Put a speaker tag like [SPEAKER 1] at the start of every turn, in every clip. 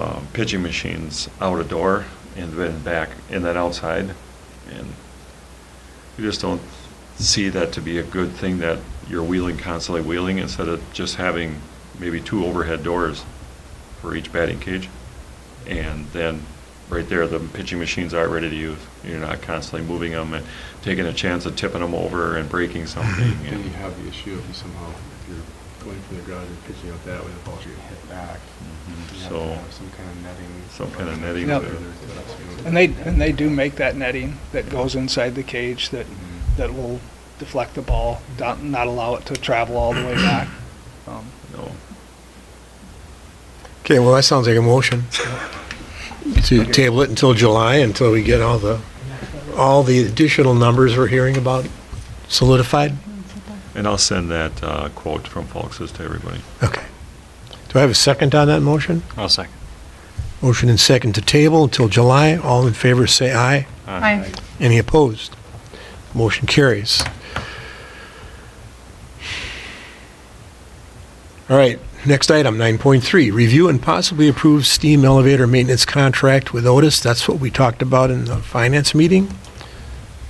[SPEAKER 1] um, pitching machines out a door and then back, and then outside. And we just don't see that to be a good thing, that you're wheeling, constantly wheeling, instead of just having maybe two overhead doors for each batting cage. And then, right there, the pitching machines are ready to use. You're not constantly moving them and taking a chance of tipping them over and breaking something.
[SPEAKER 2] Then you
[SPEAKER 1] and-
[SPEAKER 2] have the issue if you somehow, if you're going from the garage and pitching out that way, the ball's gonna hit back.
[SPEAKER 1] Mhm.
[SPEAKER 2] You have to
[SPEAKER 1] So-
[SPEAKER 2] have Some kind of netting.
[SPEAKER 1] Some kind of netting
[SPEAKER 2] Whether
[SPEAKER 3] there.
[SPEAKER 2] it's-
[SPEAKER 3] And they, and they do make that netting that goes inside the cage that,
[SPEAKER 2] Mhm.
[SPEAKER 3] that will deflect the ball, not, not allow it to travel all the way back. Um,
[SPEAKER 1] No.
[SPEAKER 4] Okay, well, that sounds like a motion to table it until July, until we get all the, all the additional numbers we're hearing about solidified?
[SPEAKER 1] And I'll send that uh, quote from Fox's to everybody.
[SPEAKER 4] Okay. Do I have a second on that motion?
[SPEAKER 5] I'll second.
[SPEAKER 4] Motion and second to table until July. All in favor, say aye.
[SPEAKER 6] Aye.
[SPEAKER 4] Any opposed? Motion carries. All right, next item, 9.3, review and possibly approve steam elevator maintenance contract with Otis. That's what we talked about in the finance meeting,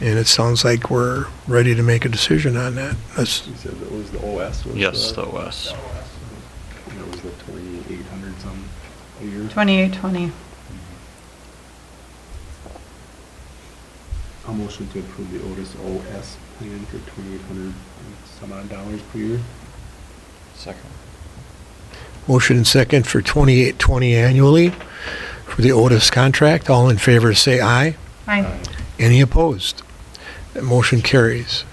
[SPEAKER 4] and it sounds like we're ready to make a decision on that. That's,
[SPEAKER 2] You said that was the OS, was the?
[SPEAKER 5] Yes, the OS.
[SPEAKER 2] That was the twenty-eight hundred some a year.
[SPEAKER 6] 2820.
[SPEAKER 2] A motion to approve the Otis OS plan for twenty-eight hundred some odd dollars per year.
[SPEAKER 5] Second.
[SPEAKER 4] motion and second for 2820 annually for the Otis contract. All in favor, say aye.
[SPEAKER 2] Uh,
[SPEAKER 6] Aye.
[SPEAKER 4] Any opposed? That motion carries.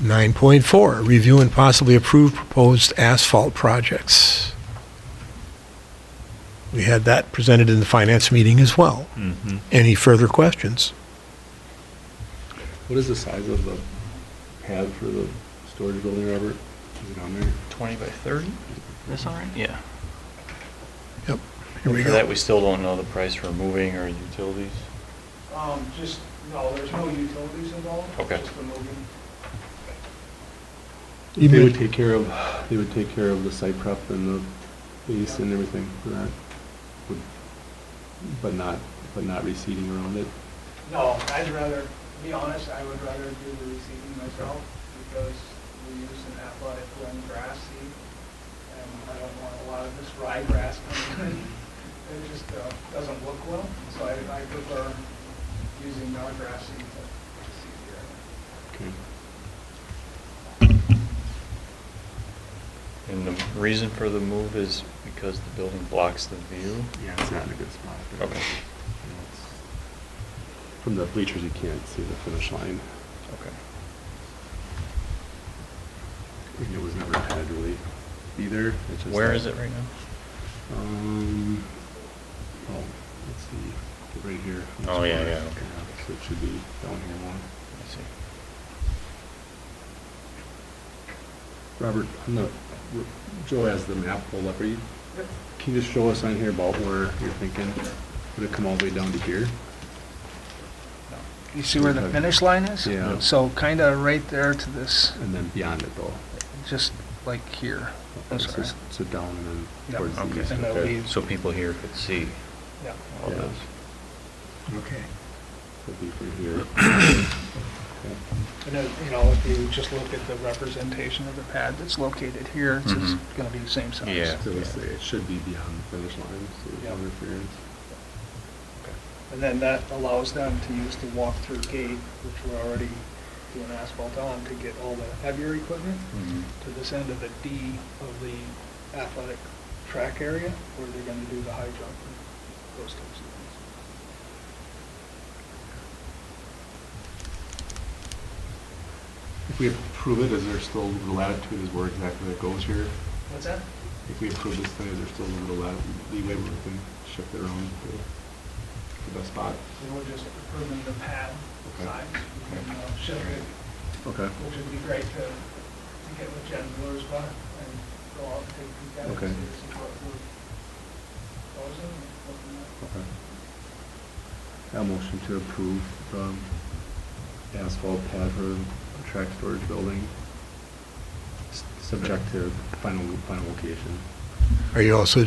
[SPEAKER 4] 9.4, review and possibly approve proposed asphalt projects. We had that presented in the finance meeting as well.
[SPEAKER 1] Mhm.
[SPEAKER 4] Any further questions?
[SPEAKER 2] What is the size of the pad for the storage building, Robert? Is it on there?
[SPEAKER 5] 20 by 30? That's all right? Yeah.
[SPEAKER 4] Yep. Here
[SPEAKER 5] And
[SPEAKER 4] we
[SPEAKER 5] For that,
[SPEAKER 4] go.
[SPEAKER 5] we still don't know the price for moving or utilities.
[SPEAKER 3] Um, just, no, there's no utilities involved.
[SPEAKER 5] Okay.
[SPEAKER 3] Just the moving.
[SPEAKER 4] You
[SPEAKER 2] They would
[SPEAKER 4] mean-
[SPEAKER 2] take care of, they would take care of the site prep and the base and everything for that, Would- but not, but not reseeding around it.
[SPEAKER 3] No, I'd rather, to be honest, I would rather do the reseeding myself because we use an athletic blend grass seed and I don't want a lot of this rye grass coming in. It just uh, doesn't look well, so I I prefer using our grass seed to to seed here.
[SPEAKER 2] Okay.
[SPEAKER 5] And the reason for the move is because the building blocks the view.
[SPEAKER 2] Yeah, it's not in a good spot.
[SPEAKER 5] Okay.
[SPEAKER 2] From the bleachers, you can't see the finish line.
[SPEAKER 5] Okay.
[SPEAKER 2] It was never had really either. It's just
[SPEAKER 5] Where
[SPEAKER 2] that-
[SPEAKER 5] is it right now?
[SPEAKER 2] Um, oh, let's see, right here.
[SPEAKER 5] Oh, yeah, yeah, okay.
[SPEAKER 2] So it should be down here more.
[SPEAKER 5] I see.
[SPEAKER 2] Robert, on the, Joe has the map pulled up, are you, can you just show us on here about where you're thinking? Would it come all the way down to here?
[SPEAKER 3] You see where the finish line is?
[SPEAKER 2] Yeah.
[SPEAKER 3] So kind of right there to this,
[SPEAKER 2] And then beyond it though?
[SPEAKER 3] just like here. I'm
[SPEAKER 2] So-
[SPEAKER 3] sorry.
[SPEAKER 2] So down and then
[SPEAKER 3] Yeah,
[SPEAKER 2] towards the
[SPEAKER 5] okay.
[SPEAKER 2] east.
[SPEAKER 3] And that'll be-
[SPEAKER 5] So people here could see
[SPEAKER 3] Yeah.
[SPEAKER 5] all
[SPEAKER 2] Yeah.
[SPEAKER 5] this.
[SPEAKER 4] Okay.
[SPEAKER 2] It'll be from here. Okay.
[SPEAKER 3] And it, you know, if you just look at the representation of the pad that's located here, it's just
[SPEAKER 5] Mhm.
[SPEAKER 3] gonna be the same size.
[SPEAKER 5] Yeah.
[SPEAKER 2] So let's say it should be beyond the finish line, so there's no
[SPEAKER 3] Yeah.
[SPEAKER 2] interference.
[SPEAKER 3] And then that allows them to use the walk-through gate, which we're already doing asphalt on, to get all the heavier equipment
[SPEAKER 5] Mhm.
[SPEAKER 3] to this end of the D of the athletic track area, where they're gonna do the high jump and those types of
[SPEAKER 2] If we approve it, is there still the latitude is where exactly it goes here?
[SPEAKER 3] things. What's that?
[SPEAKER 2] If we approve this thing, is there still a little lat- leeway where we can shift it around to the best spot?
[SPEAKER 3] So we're just approving the pad
[SPEAKER 2] Okay.
[SPEAKER 3] size, we can uh, shift it
[SPEAKER 2] Okay.
[SPEAKER 3] which would be great to, to get with Jen Brewer's bar and go out and take a peek at it.
[SPEAKER 2] Okay.
[SPEAKER 3] and See what we're proposing and looking at.
[SPEAKER 2] A motion to approve the asphalt pad for the track storage building, s- subject to final, final location.
[SPEAKER 4] Are you also